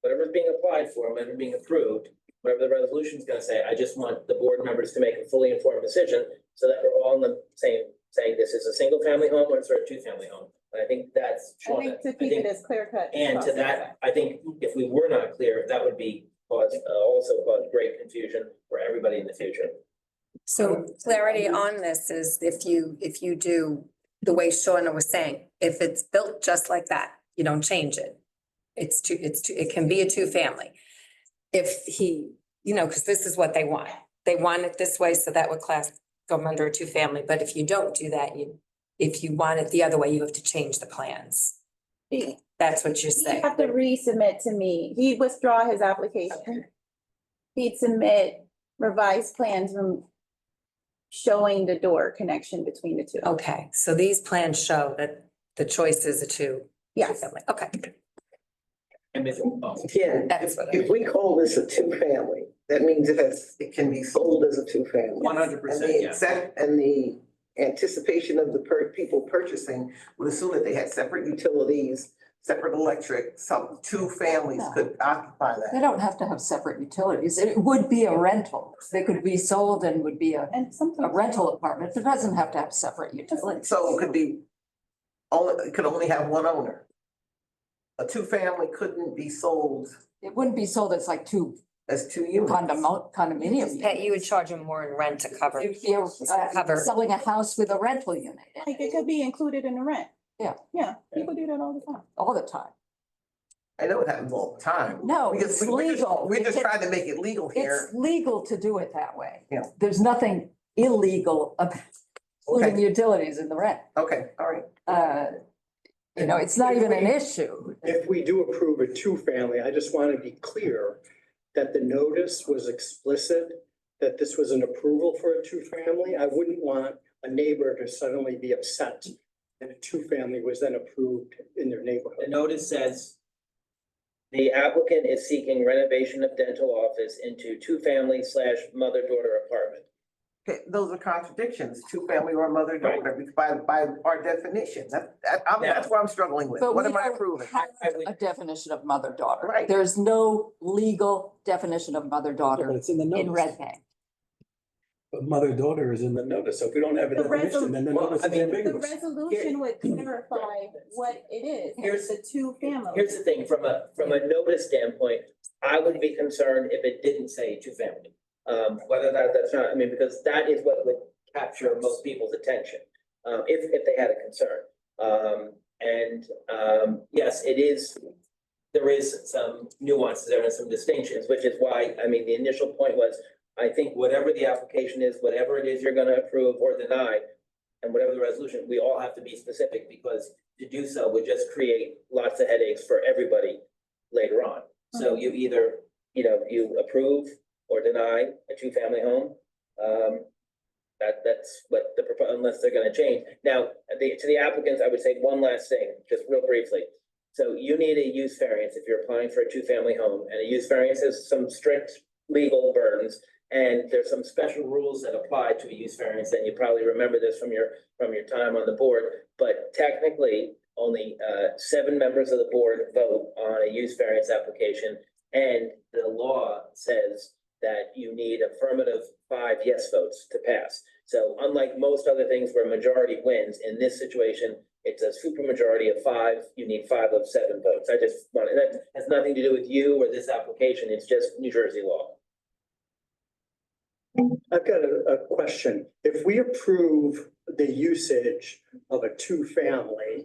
whatever's being applied for, whatever being approved, whatever the resolution's gonna say, I just want the board members to make a fully informed decision so that we're all on the same, saying this is a single family home or it's a two family home. And I think that's. I Shawna, think to keep it as clear cut. And to that, I think if we were not clear, that would be cause, uh, also cause great confusion for everybody in the future. Oh, So clarity on this is if you, if you do the way Shawna was saying, if it's built just like that, you don't change it. It's two, it's two, it can be a two family. If he, you know, because this is what they want. They want it this way, so that would class come under a two family, but if you don't do that, you, if you want it the other way, you have to change the plans. You That's what you're saying. have to resubmit to me. He'd withdraw his application. He'd submit revised plans from showing the door connection between the two. Okay, so these plans show that the choice is a two. Yes. family. Okay, And if, oh, Yeah, that's what I, if we call this a two-family, that means it has, it can be sold as a two-family. 100%, And the yeah. accept, and the anticipation of the per, people purchasing would assume that they had separate utilities, separate electric, some, two families could occupy They that. don't have to have separate utilities. It would be a rental. They could be sold and would be a, And a sometimes. rental apartment. It doesn't have to have separate utilities. So it could be, only, it could only have one owner. A two-family couldn't be sold It wouldn't be sold as like two as two units. condomo- condominium that units. you would charge them more in rent to cover. It'd be a- uh, Cover. selling a house with a rental unit in Like it it could be included in the rent. Yeah. Yeah, people do that all the time. all the time. I know it happens all the time. No, We just- it's we- we're just- legal. We're just It's- trying to make it legal here. It's legal to do it that way. Yeah. There's nothing illegal about including utilities in the rent. Okay, all right. Uh, You know, it's not even an issue. If we do approve a two-family, I just want to be clear that the notice was explicit, that this was an approval for a two-family. I wouldn't want a neighbor to suddenly be upset that a two-family was then approved in their The neighborhood. notice says. The applicant is seeking renovation of dental office into two-family slash mother-daughter apartment. Okay, those are contradictions, two family or mother daughter, by, by our definition, that, that, I'm, Yeah. that's what I'm struggling with, But what we am I don't proving? have I would- A definition of mother-daughter. Right. There is no legal definition of But mother-daughter it's in the in notice. Red Bank. But mother, daughter is in the notice. So if we don't have a The definition, then the resol- notice Well, I is mean, The ambiguous. resolution would clarify what it is. Here's- It's a two family. Here's the thing, from a, from a notice standpoint, I would be concerned if it didn't say two-family. Um, whether that, that's not, I mean, because that is what would capture most people's attention, uh, if, if they had a concern. Um, and, um, yes, it is, there is some nuances there and some distinctions, which is why, I mean, the initial point was, I think whatever the application is, whatever it is you're gonna approve or deny, and whatever the resolution, we all have to be specific, because to do so would just create lots of headaches for everybody later on. So you either, you know, you approve or deny a two-family home. Um, that, that's what the, propo- unless they're gonna change. Now, the, to the applicants, I would say one last thing, just real briefly. So you need a use variance if you're applying for a two-family home, and a use variance has some strict legal burdens. And there's some special rules that apply to a use variance, and you probably remember this from your, from your time on the board. But technically, only uh seven members of the board vote on a use variance application. And the law says that you need affirmative five yes votes to pass. So unlike most other things where majority wins, in this situation, it's a supermajority of five, you need five of seven votes. I just wanted, that has nothing to do with you or this application, it's just New Jersey law. I've got a, a question. If we approve the usage of a two-family,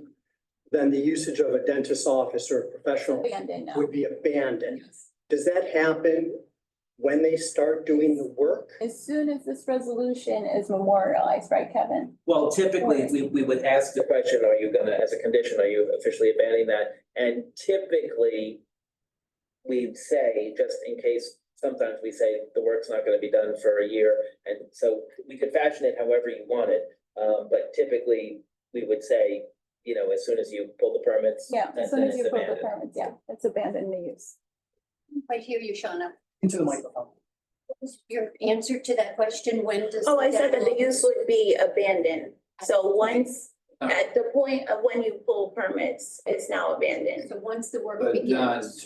then the usage of a dentist's office or a professional Abandoned now. would be abandoned. Yes. Does that happen when they start doing the work? As soon as this resolution is memorialized, right, Kevin? Well, typically, we, we would ask the question, are you gonna, as a condition, are you officially abandoning that? And typically, we'd say, just in case, sometimes we say the work's not gonna be done for a year. And so we could fashion it however you want it, um, but typically, we would say, you know, as soon as you pull the permits. Yeah, then- as soon then as it's you pull the abandoned. permits, yeah, it's abandoned the use. I hear you, Shauna. Into the microphone. Your answer to that question, when does? Oh, I said that the deadline- use would be abandoned. So once, at the point of when you pull permits, it's now abandoned. So once the work begins.